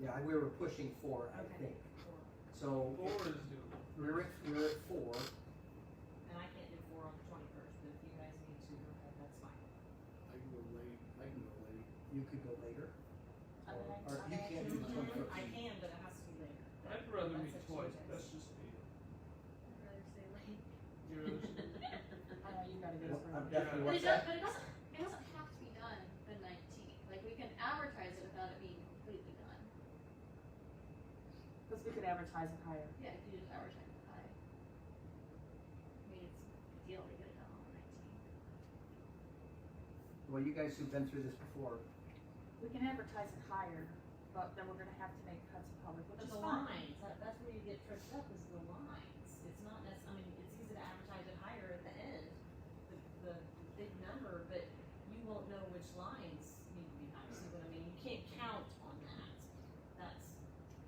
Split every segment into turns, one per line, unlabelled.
Yeah, we were pushing four, I
Okay.
think. So
Four is doable.
we're at, we're at four.
And I can't do four on the twenty-first, but if you guys need to, then that's fine.
I can go late, I can go late.
You could go later.
I mean, I- I
Or you
mean, I
can't
do
can-
21st.
I can, but it has to be later.
I'd rather
That's
meet
up to you
twice,
guys.
that's just me.
I'd rather stay late.
You're just-
Uh,
I know you gotta
Well, I'm
Yeah.
definitely
But
what's
it does,
that?
but it doesn't, it doesn't have to be done the nineteenth, like, we can advertise it without it being completely done.
Because we could advertise it higher.
Yeah, if you just advertise it high. I mean, it's a big deal to get it done on the nineteenth.
Well, you guys who've been through this before,
We can advertise it higher, but then we're gonna have to make cuts in public, which
But
is
the
fine.
lines, that, that's where you get tripped up is the lines. It's not nec- I mean, it's easy to advertise it higher at the end, the, the big number, but you won't know which lines need to be higher. See what I mean? You can't count on that. That's,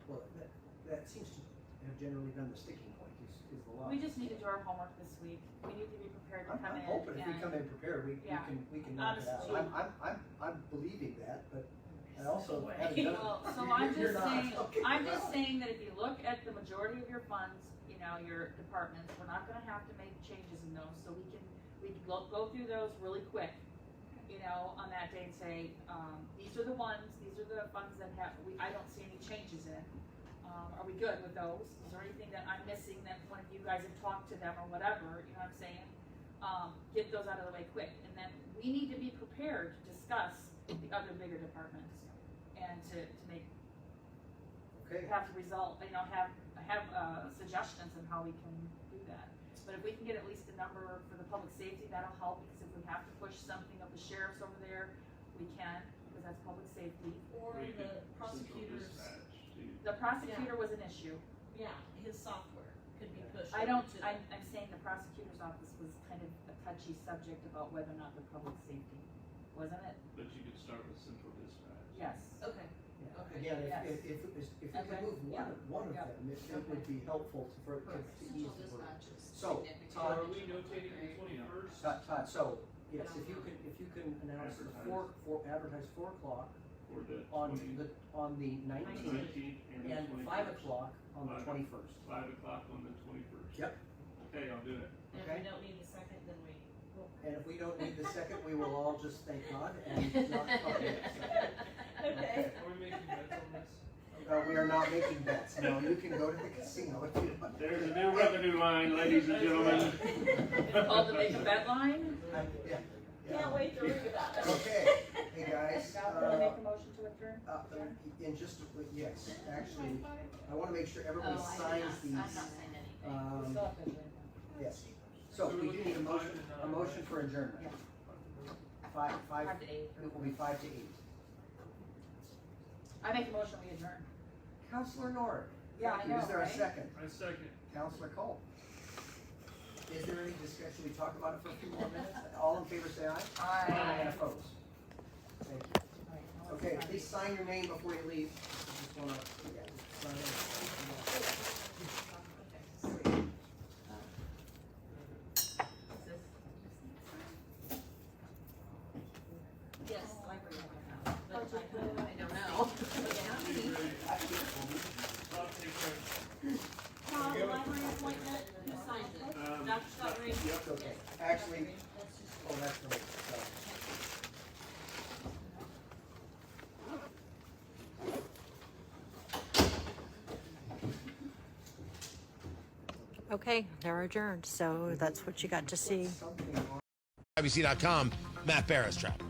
well, that, that seems to have generally been the sticking point is, is the line.
We just need to do our homework this week. We need to be prepared to
I'm,
come
I'm
in.
hoping if we
and-
come in prepared, we, we
Yeah.
can, we can knock it out.
Honestly.
I'm, I'm, I'm, I'm believing that, but I also
way.
haven't done it.
Well, so
You're-
I'm
you're
just
not.
saying,
Okay,
I'm
well.
just saying that if you look at the majority of your funds, you know, your departments, we're not gonna have to make changes in those, so we can, we can go, go through those really quick. You know, on that day and say, um, these are the ones, these are the funds that have, we, I don't see any changes in. Um, are we good with those? Is there anything that I'm missing that one of you guys have talked to them or whatever, you know what I'm saying? Um, get those out of the way quick, and then we need to be prepared to discuss the other bigger departments and to, to make
Okay,
have to result, you know, have, have, uh, suggestions on how we can do that. But if we can get at least a number for the public safety, that'll help, because if we have to push something of the sheriff's over there, we can, because that's public safety.
or
We
the
could
prosecutor's,
central dispatch, too.
The prosecutor was an issue.
yeah, his software could be pushed.
I don't,
over to
I'm, I'm saying the prosecutor's office was kind of a touchy subject about whether or not the public safety, wasn't it?
But you could start with central dispatch.
Yes.
Okay,
yeah.
Okay.
again,
Yes.
if, if, if, it was- if we could
Okay.
move one, of- one of
Yeah.
them, it, it would be helpful to, for, to
Perfect.
to ease
Central
the burden.
dispatch is
So,
So
significant.
are we notating the twenty-first?
Todd, Todd, so, yes, if you can, if you can announce the four, four, advertise four o'clock
Or the
on
twenty,
the, on the
the
nineteenth,
nineteenth and the
and
twenty-first?
five o'clock on the
Five.
twenty-first.
Five o'clock on the twenty-first?
Yep.
Okay, I'll do it.
and if we
Okay.
don't need the second, then we, well,
And if we don't need the second, we will all just thank God and not talk about the second.
okay.
Are we making bets on this?
Uh, we are not making bets, no, you can go to the casino if you want.
There's a new revenue line, ladies and gentlemen.
It's called the make a bet line.
I- yeah, yeah.
Can't wait to read about it.
Okay, hey guys,
Now, do I
uh,
make a motion to adjourn?
uh, in just, a- yes, actually, I wanna make sure everybody
Oh, I did
signs
not-
these.
I'm not signing
We
anything.
Um,
still have to adjourn now.
yes, so we do need a motion, a motion for adjournment. Five, five,
Five to eight.
it will be five to eight.
I make a motion, we adjourn.
Counselor Nord.
Yeah, I
thank you. Is
know,
there a
right?
second?
I second.
Counselor Cole. Is there any discussion? Should we talk about it for a few more minutes? All in favor, say aye.
Aye.
And opposed? Thank you. Okay, please sign your name before you leave. I Just wanna, yeah, sign
Yes, library.
But
But I
I don't know.
Be ready. I'll take
Tom, library appointment, who signed it?
care. Um,
Dr. Scott Green?
Yep.
it. Okay,
Yes,
actually,
Dr. Green. That's just-
oh, that's the, so.
Okay, they're adjourned, so that's what you got to see.
Something on-
IBC.com, Matt Barris trap.